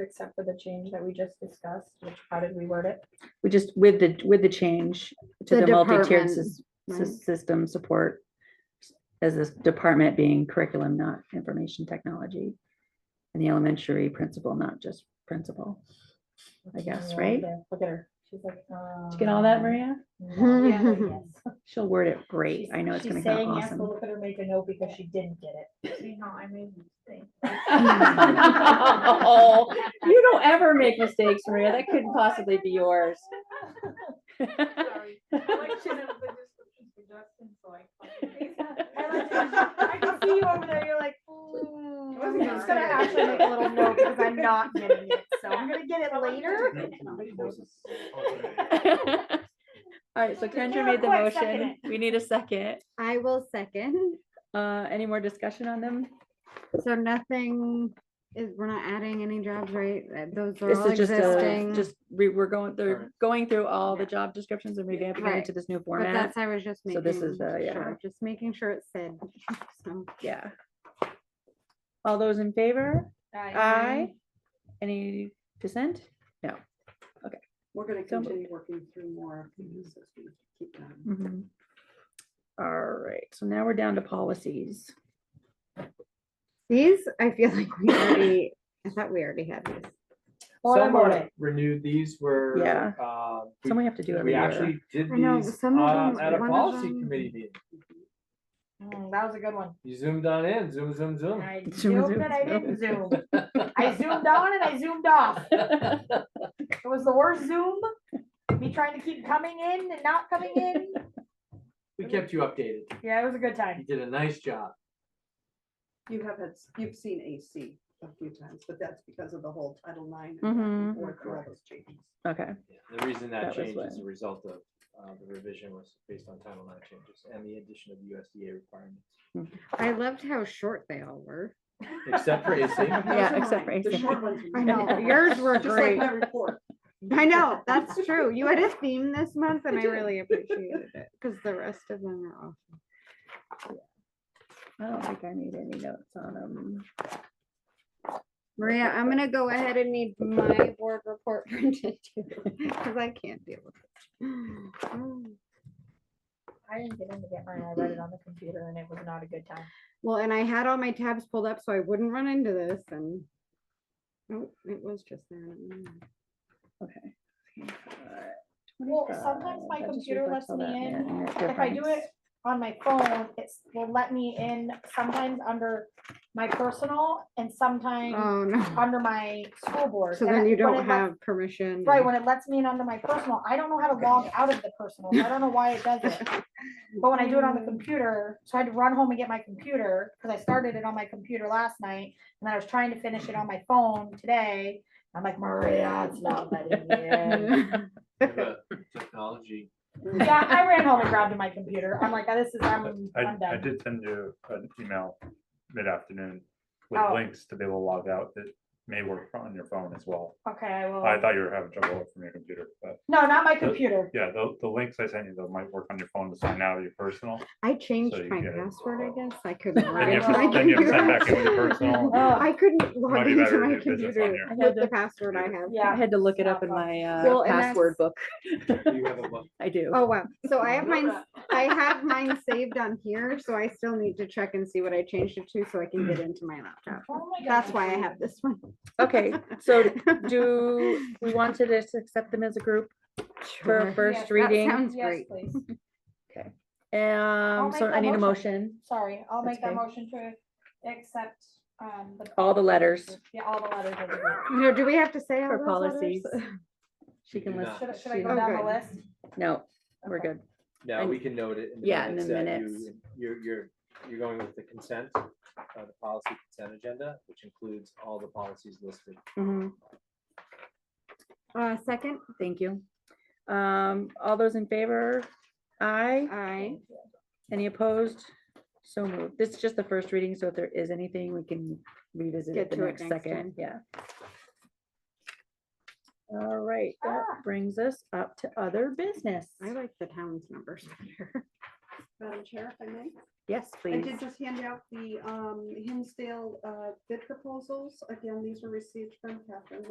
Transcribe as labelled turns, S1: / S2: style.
S1: except for the change that we just discussed, which, how did we word it?
S2: We just, with the, with the change to
S3: The
S2: the multi-tiered
S3: department,
S2: sys- sys-
S3: right.
S2: system support as this department being curriculum, not information technology. And the elementary principal, not just principal. I guess,
S1: Yeah,
S2: right?
S1: there, Look at her. She's like, um.
S2: Did you get all that, Maria?
S1: no, yeah, yes.
S2: She'll word it great.
S1: She's-
S2: I know it's
S1: she's
S2: gonna go
S1: saying yes, but
S2: awesome.
S1: Look at her make a note because she didn't get
S4: See how I made you think.
S2: Oh, You don't ever make mistakes, Maria. That couldn't possibly be yours.
S4: Sorry. Collection of the descriptions for Justin, so I copied and pasted.
S1: it. I can see you over there, you're like, ooh.
S4: I
S1: I'm
S4: wasn't
S1: just gonna
S4: sorry.
S1: actually make a little note because I'm not getting it, so I'm gonna get it later.
S2: All right, so Kendra
S1: Sarah,
S2: made the
S1: quick, second
S2: motion. We need a second.
S3: I will second.
S2: Uh, any more discussion on them?
S3: So nothing is, we're not adding any jobs, right? Uh, Those are
S2: This
S3: all
S2: is just, a-
S3: existing.
S2: just, we, we're going, they're
S5: Current.
S2: going through all the
S3: Yeah.
S2: job descriptions and revamping it
S3: Right.
S2: into this new
S3: But
S2: format.
S3: that's, I was just
S2: So
S3: making.
S2: this is the- yeah.
S3: sure, Just making sure it said. so.
S2: Yeah. All those in favor? Aye. Any dissent? No.
S6: We're gonna
S2: So-
S6: continue working through more of these as we keep going.
S3: Mm-hmm.
S2: Mhm. All right, so now we're down to policies.
S3: These, I feel like we already, I thought we already had these.
S1: Order,
S5: Some
S1: order.
S5: were renewed, these were.
S2: Yeah.
S5: uh, we-
S2: Some we have to do every
S5: We
S2: year.
S5: actually did
S3: I know, but
S5: these
S3: some of
S5: um,
S3: them-
S5: at a
S3: one of
S5: policy
S3: them-
S5: committee meeting.
S1: Mm, That was a good one.
S5: You zoomed on in, zoom, zoom, Oh, zoom.
S1: I
S2: Zoom,
S1: zoomed
S2: zoom,
S1: and I
S2: zoom.
S1: didn't zoom. I zoomed on and I zoomed off. It was the worst Zoom. Me trying to keep coming in and not coming in.
S5: We kept you updated.
S1: Yeah, it was a good
S5: You
S1: time.
S5: did a nice job.
S6: You have had, you've seen AC a few times, but that's because of the whole Title IX.
S2: Mhm.
S6: and work for all those changes.
S2: Okay,
S5: Yeah, The reason that
S2: That was
S5: changed
S2: what-
S5: is a result of, uh, the revision was based on Title IX changes and the addition of USDA requirements.
S3: I loved how short they all were.
S5: Except for AC.
S2: yeah, except for
S6: The
S2: AC.
S6: short ones.
S3: I know, yours were
S6: Just like
S3: great.
S6: my report.
S3: I know, that's true. You had a theme this month and I really appreciated it because the rest of them are off.
S2: I don't think I need any notes on them.
S3: Maria, I'm gonna go ahead and need my board report printed too, because I can't deal with it. Mm.
S1: I didn't get in to get mine. I read it on the computer and it was not a good time.
S3: Well, and I had all my tabs pulled up so I wouldn't run into this and. Oh, it was just there. and it went away.
S2: Okay.
S1: Well, sometimes
S2: 25,
S1: my
S2: that just
S1: computer
S2: reflects
S1: lets
S2: all
S1: me
S2: that,
S1: in.
S2: yeah, and that
S1: If I do
S2: difference.
S1: it on my phone, it's, will let me in sometimes under my personal and sometimes
S3: Oh, no.
S1: under my school board.
S3: So
S1: And
S3: then you
S1: when it
S3: don't
S1: lets-
S3: have permission.
S1: Right,
S3: and-
S1: when it lets me in under my personal, I don't know how to log out of the personal. so I don't know why it does it. But when I do it on the computer, so I had to run home and get my computer, because I started it on my computer last night, and then I was trying to finish it on my phone today. I'm like, Maria, it's not letting me in.
S5: The Technology.
S1: Yeah, I ran home and grabbed my computer. I'm like, this is, I'm,
S7: I,
S1: I'm
S7: I
S1: done.
S7: did send you an email mid-afternoon with
S1: Oh.
S7: links to be able to log out that may work on your phone as well.
S1: Okay, I will.
S7: I thought you were having trouble from your computer, but
S1: No, not my computer.
S7: yeah, the, the links I sent you though might work on your phone to sign out of your personal.
S3: I changed
S7: you
S3: my
S7: get it.
S3: password, I guess. I couldn't. log
S7: Then you have
S3: into my
S7: to, then you have to sign
S3: computer.
S7: back in with your personal.
S1: Oh.
S3: I couldn't log
S7: be
S3: into
S7: better
S3: my
S7: to do business on
S3: computer
S7: your-
S3: with the password I have.
S2: I
S1: Yeah.
S2: had to look it up in
S1: Snap on.
S2: my uh,
S3: Well, and
S2: password book.
S5: You have a, bu-
S2: I do.
S3: Oh, wow. So I have mine, I have mine saved on here, so I still need to check and see what I changed it to so I can get into my laptop.
S1: Oh my
S3: That's
S1: gosh.
S3: why I have this one.
S2: Okay, so do, we want to just accept them as a group for a
S3: Sure.
S1: Yes,
S2: first
S1: that
S2: reading?
S3: Sounds
S1: Yes,
S3: great.
S1: please.
S2: Um, so
S1: make
S2: I
S1: that
S2: need a
S1: motion.
S2: motion,
S1: Sorry, I'll
S2: That's
S1: make that
S2: okay.
S1: motion to accept, um. the-
S2: all the letters
S1: Yeah, all the letters. of the group.
S3: No, do we have to say all
S2: for
S3: those
S2: policies.
S3: letters?
S2: She can
S5: do
S2: list,
S5: not.
S1: Should, I- should
S2: She
S1: I go
S3: Oh,
S2: did.
S1: down the
S3: Okay.
S1: list?
S2: no, we're
S1: Okay.
S2: good.
S5: now
S2: And-
S5: we can note it in the
S2: Yeah, in
S5: minutes
S2: the
S5: that
S2: minutes.
S5: you, you're, you're, you're going with the consent, uh, the policy consent agenda, which includes all the policies listed.
S2: Mhm,
S3: Uh, second,
S2: Thank you. Um, all those in favor? Aye.
S3: I,
S2: Any opposed? So moved. This is just the first reading, so if there is anything, we can revisit it
S3: Get
S2: the
S3: to it
S2: next
S3: next
S2: second,
S3: time.
S2: yeah. All right, that
S1: Ah.
S2: brings us up to other business.
S3: I like the town's numbers better.
S6: Madam Chair, if I may?
S2: Yes,
S6: I
S2: please.
S6: did just hand out the um, Hinsdale uh, bid proposals. Again, these were received from Catherine